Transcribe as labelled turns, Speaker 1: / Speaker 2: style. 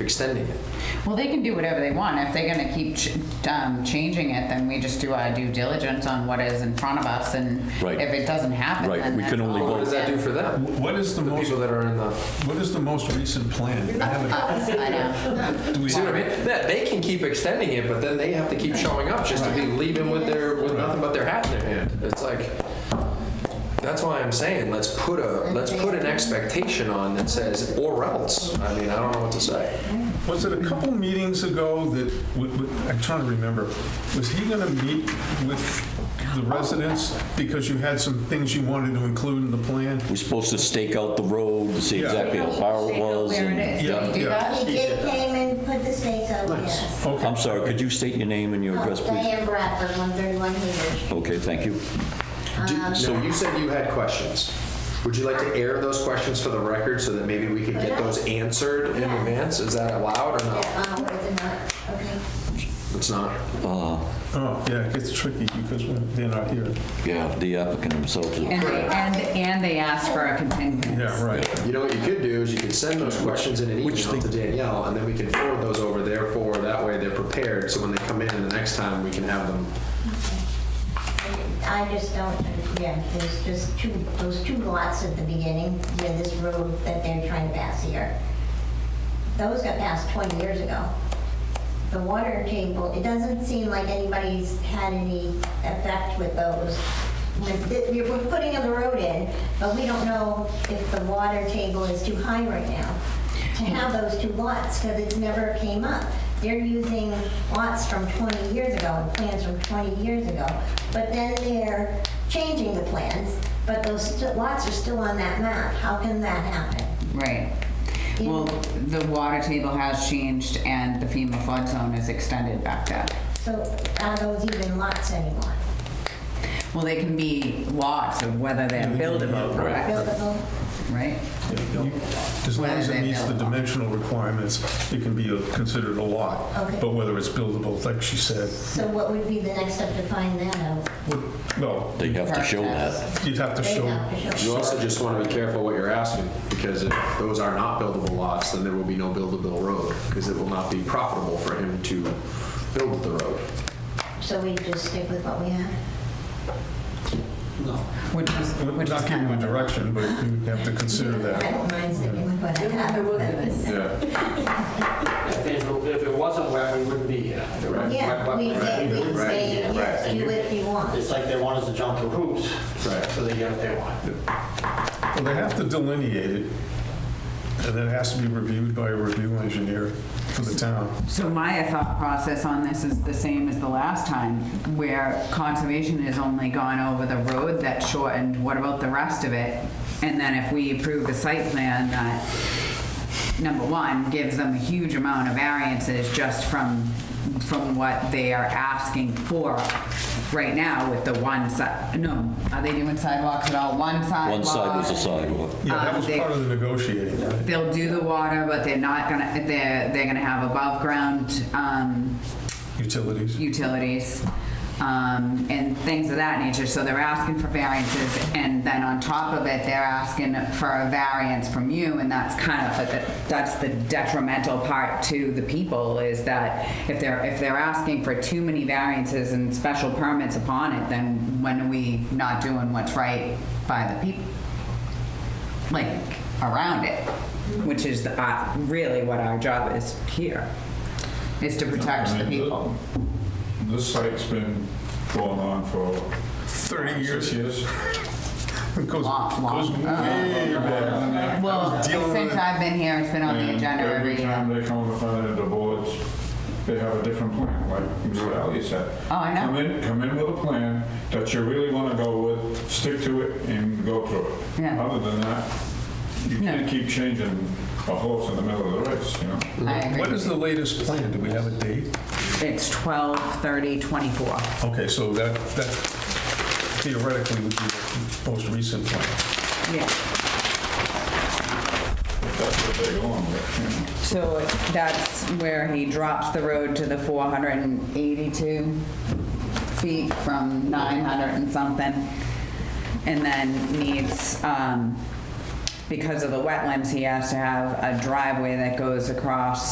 Speaker 1: extending it.
Speaker 2: Well, they can do whatever they want. If they're gonna keep ch- um, changing it, then we just do our due diligence on what is in front of us, and
Speaker 3: Right.
Speaker 2: if it doesn't happen,
Speaker 3: Right,
Speaker 2: then
Speaker 3: we can
Speaker 2: that's
Speaker 3: only
Speaker 1: But
Speaker 2: all
Speaker 1: what
Speaker 3: vote.
Speaker 1: does that do for them?
Speaker 4: What is the
Speaker 1: The
Speaker 4: most,
Speaker 1: people that are in the,
Speaker 4: what is the most recent plan? I haven't-
Speaker 2: Us, I know.
Speaker 4: do we
Speaker 1: you see what I
Speaker 4: have-
Speaker 1: mean? That, they can keep extending it, but then they have to keep showing up just to be leaving with their, with nothing but their hat in their hand. It's like, that's why I'm saying, let's put a, let's put an expectation on that says, or else. I mean, I don't know what to say.
Speaker 4: Was it a couple meetings ago that, w- w- I'm trying to remember, was he going to meet with the residents because you had some things you wanted to include in the plan?
Speaker 3: We're supposed to stake out the road, to see
Speaker 4: Yeah.
Speaker 3: exactly how far it was.
Speaker 2: Where it
Speaker 3: and-
Speaker 2: is,
Speaker 4: Yeah,
Speaker 2: Did we do
Speaker 4: yeah.
Speaker 2: that?
Speaker 5: He did came and put the stakes out, yes.
Speaker 4: Okay.
Speaker 3: I'm sorry, could you state your name and your address,
Speaker 2: Oh,
Speaker 3: please?
Speaker 5: Diane Bradford, 131 Hayward Street.
Speaker 3: Okay, thank you.
Speaker 5: Um,
Speaker 1: Do- So you said you had questions. Would you like to air those questions for the record so that maybe we could get those answered in advance? Is that allowed or
Speaker 5: Yeah,
Speaker 1: not?
Speaker 5: uh, where's the nut? Okay.
Speaker 1: It's not.
Speaker 4: Oh, yeah, it gets tricky because when they're not here.
Speaker 3: Yeah, the applicant himself. is-
Speaker 2: And they, and, and they asked for a continuance.
Speaker 4: Yeah, right.
Speaker 1: You know what you could do is you could send those questions in an
Speaker 3: Which
Speaker 1: email to Danielle, and then we can forward those over there for, that way they're prepared, so when they come in the next time, we can have them.
Speaker 5: I just don't, yeah, there's just two, those two lots at the beginning, where this road that they're trying to pass here. Those got passed 20 years ago. The water table, it doesn't seem like anybody's had any effect with those. Like, th- We're we're putting the road in, but we don't know if the water table is too high right now to have those two lots, because it never came up. They're using lots from 20 years ago and plans from 20 years ago, but then they're changing the plans, but those st- lots are still on that map. How can that happen?
Speaker 2: Right. Well, the water table has changed and the FEMA flood zone is extended back there.
Speaker 5: So are those even lots anymore?
Speaker 2: Well, they can be lots of whether they're buildable, correct?
Speaker 5: Buildable?
Speaker 2: Right?
Speaker 4: You- As long as it meets the dimensional requirements, it can be a- considered a lot.
Speaker 5: Okay.
Speaker 4: But whether it's buildable, like she said,
Speaker 5: So what would be the next step to find that out?
Speaker 4: would- well,
Speaker 3: They have to show that.
Speaker 4: you'd have to
Speaker 5: They'd
Speaker 4: show,
Speaker 5: have to
Speaker 1: You
Speaker 5: show.
Speaker 1: also just want to be careful what you're asking, because if those are not buildable lots, then there will be no buildable road, because it will not be profitable for him to build the road.
Speaker 5: So we just stick with what we have?
Speaker 2: Which is, which is
Speaker 4: not give
Speaker 2: kind
Speaker 4: you a
Speaker 2: of.
Speaker 4: direction, but you'd have to consider
Speaker 5: I
Speaker 4: that.
Speaker 5: don't mind sticking with what I have.
Speaker 4: Yeah.
Speaker 6: If it, if it wasn't wet, we wouldn't be here.
Speaker 5: Yeah, we say, we say, yes, do what you want.
Speaker 6: It's like they want us to jump through hoops,
Speaker 1: Right.
Speaker 6: so they get what they want.
Speaker 4: Well, they have to delineate it, and that has to be reviewed by a review engineer for the town.
Speaker 2: So my thought process on this is the same as the last time, where conservation has only gone over the road that shortened, what about the rest of it? And then if we approve a site plan that, number one, gives them a huge amount of variances just from, from what they are asking for right now with the one side, no, are they doing sidewalks at all? One sidewalk?
Speaker 3: One side was a sidewalk.
Speaker 4: Yeah, that
Speaker 2: Uh,
Speaker 4: was
Speaker 2: they-
Speaker 4: part of the negotiating, right?
Speaker 2: They'll do the water, but they're not gonna, they're, they're gonna have above-ground, um,
Speaker 4: Utilities.
Speaker 2: utilities, um, and things of that nature. So they're asking for variances, and then on top of it, they're asking for a variance from you, and that's kind of, a- that's the detrimental part to the people, is that if they're, if they're asking for too many variances and special permits upon it, then when are we not doing what's right by the people? Like, around it, which is the, uh, really what our job is here, is to protect the people.
Speaker 7: This site's been going on for.
Speaker 4: 30 years.
Speaker 7: Six years.
Speaker 4: It goes,
Speaker 2: Long, long. Uh,
Speaker 4: goes way back.
Speaker 2: Well,
Speaker 4: dealing with
Speaker 2: since
Speaker 4: it.
Speaker 2: I've been here, it's been on the
Speaker 7: And
Speaker 2: agenda every
Speaker 7: time
Speaker 2: year.
Speaker 7: they come in front of the boards, they have a different plan, like Mr. Ali said.
Speaker 2: Oh, I know.
Speaker 7: Come in, come in with a plan that you really want to go with, stick to it and go through it.
Speaker 2: Yeah.
Speaker 7: Other than that, you
Speaker 2: No.
Speaker 7: can't keep changing a horse in the middle of the race, you know?
Speaker 2: I agree.
Speaker 4: What is the latest plan? Do we have a date?
Speaker 2: It's 12/30/24.
Speaker 4: Okay, so that, that theoretically would be the most recent plan.
Speaker 2: Yeah.
Speaker 7: If that's what they're going with,
Speaker 2: So that's where he drops the road to the 482 feet from 900 and something. And then needs, um, because of the wetlands, he has to have a driveway that goes across